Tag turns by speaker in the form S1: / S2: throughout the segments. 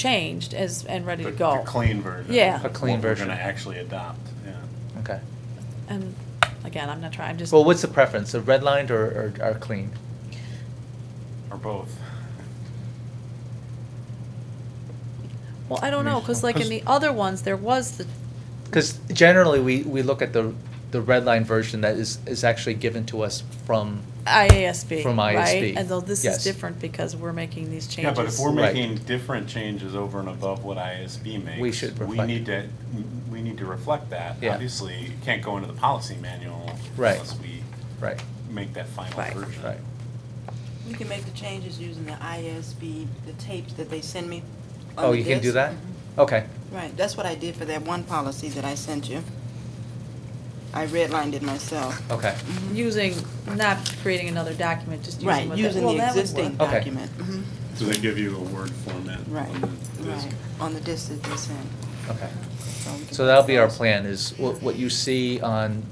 S1: changed as, and ready to
S2: The-
S1: go.
S2: The clean version.
S1: Yeah.
S2: of
S1: A
S2: what
S1: clean
S2: We're
S1: version.
S2: gonna actually adopt, yeah.
S3: Okay.
S1: And again, I'm not trying, I'm just.
S3: Well, what's the preference, a redlined or, or, or clean?
S2: Or both.
S1: Well, I don't know, because like in the other ones, there was the,
S3: Because generally, we, we look at the, the redline version that is, is actually given to us from,
S1: IASB,
S3: From
S1: right?
S3: IASB,
S1: And though this is
S3: yes.
S1: different because we're making these changes.
S2: Yeah, but if we're
S3: Right.
S2: making different changes over and above what ISB makes.
S3: We should
S2: We
S3: reflect.
S2: need to, we need to reflect that.
S3: Yeah.
S2: Obviously, you can't go into the policy manual
S3: Right.
S2: unless we
S3: right,
S2: make that final
S1: Right.
S2: version.
S3: right.
S4: We can make the changes using the ISB, the tapes that they send me. on
S3: Oh,
S4: the
S3: you can do
S4: disc.
S3: that?
S1: Mm-hmm.
S3: Okay,
S4: Right, that's what I did for that one policy that I sent you. I redlined it myself. Mm-hmm.
S3: okay,
S1: Mm-hmm. Using, not creating another document, just using what
S4: Right,
S1: that.
S4: using
S1: well,
S4: the
S1: that would
S4: existing
S1: work.
S3: Okay.
S4: document. Mhm.
S2: So they give you a Word format.
S4: Right,
S2: on the disk.
S4: right, on the disc that they send.
S3: okay.
S4: we can
S3: So that'll
S4: put
S3: be our
S4: those.
S3: plan, is what, what you see on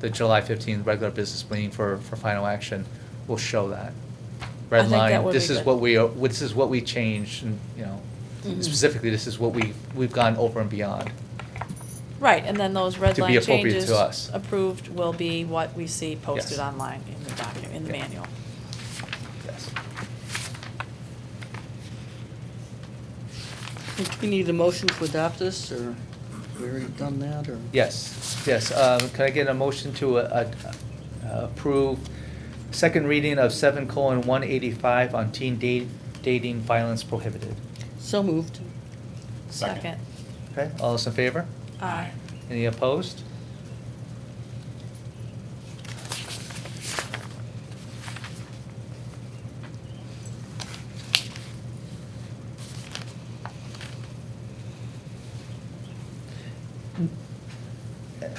S3: the July fifteenth regular business meeting for, for final action will show that.
S1: I
S3: Red
S1: think that
S3: line,
S1: would
S3: this
S1: be
S3: is
S1: good.
S3: what we, are- this is what we changed, and, you know,
S1: Mhm.
S3: specifically, this is what we, we've gone over and beyond.
S1: Right, and then those red
S3: To be
S1: line
S3: appropriate
S1: changes
S3: to us.
S1: approved will be what we see posted
S3: Yes.
S1: online in the document, in the
S3: Yeah.
S1: manual.
S3: Yes.
S5: Do we need a motion to adopt this, or we already done that, or?
S3: Yes, yes. Uh, Can I get a motion to uh, uh, approve second reading of seven colon one eighty-five on teen da- dating violence prohibited?
S5: So moved.
S2: Second.
S3: Okay, all those in favor?
S1: Aye.
S3: Any opposed?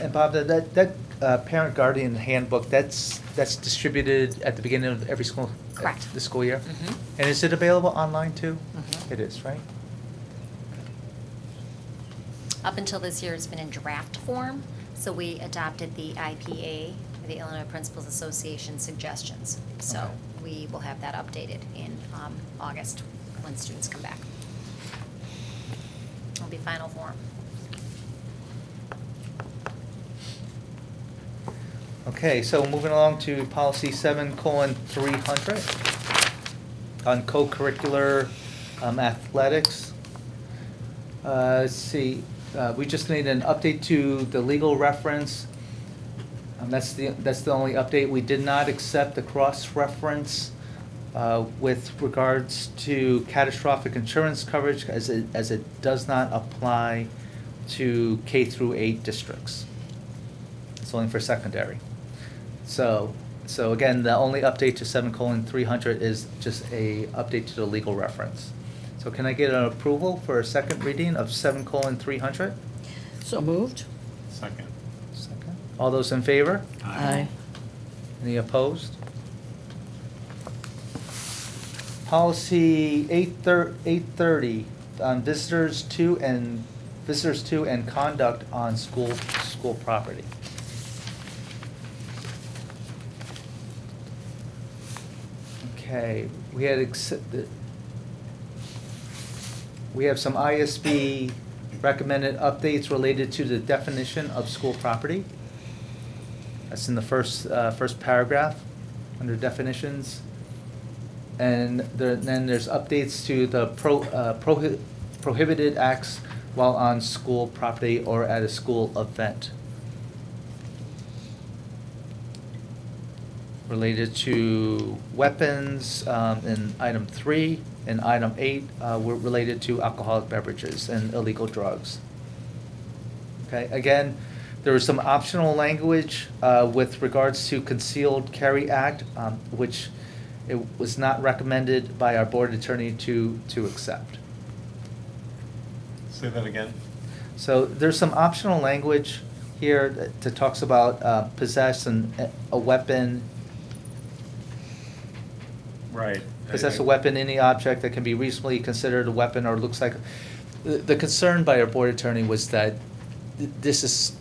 S3: And Bob, that- that, that uh, parent guardian handbook, that's, that's distributed at the beginning of every school?
S6: Correct.
S3: The school year?
S6: Mhm.
S3: And is it available online too?
S6: Mhm.
S3: It is, right?
S6: Up until this year, it's been in draft form, so we adopted the IPA, the Illinois Principals Association suggestions. So we will have that updated in um, August when students come back. It'll be final form.
S3: Okay, so moving along to policy seven colon three hundred on co-curricular um, athletics. Uh, let's see, uh, we just need an update to the legal reference. Um, that's the, that's the only update. We did not accept the cross-reference, uh, with regards to catastrophic insurance coverage as it, as it does not apply to K through eight districts. It's only for secondary. So, so again, the only update to seven colon three hundred is just a update to the legal reference. So can I get an approval for a second reading of seven colon three hundred?
S5: So moved?
S2: Second.
S3: All those in favor?
S5: Aye.
S3: Any opposed? Policy eight thir- eight thirty on visitors to and, visitors to and conduct on school, school property. Okay, we had ex- the- we have some ISB recommended updates related to the definition of school property. That's in the first, uh, first paragraph, under definitions. And there, then there's updates to the pro, uh, prohi- prohibited acts while on school property or at a school event. Related to weapons, um, in item three, and item eight, uh, were related to alcoholic beverages and illegal drugs. Okay, again, there was some optional language uh, with regards to Concealed Carry Act, um, which it was not recommended by our board attorney to, to accept.
S2: Say that again.
S3: So there's some optional language here that that talks about uh, possess and uh, a weapon,
S2: Right.
S3: possess a weapon, any object that can be reasonably considered a weapon or looks like. The- The concern by our board attorney was that th- this is,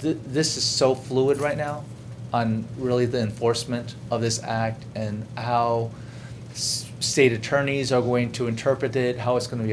S3: th- this is so fluid right now on really the enforcement of this act and how s- state attorneys are going to interpret it, how it's gonna be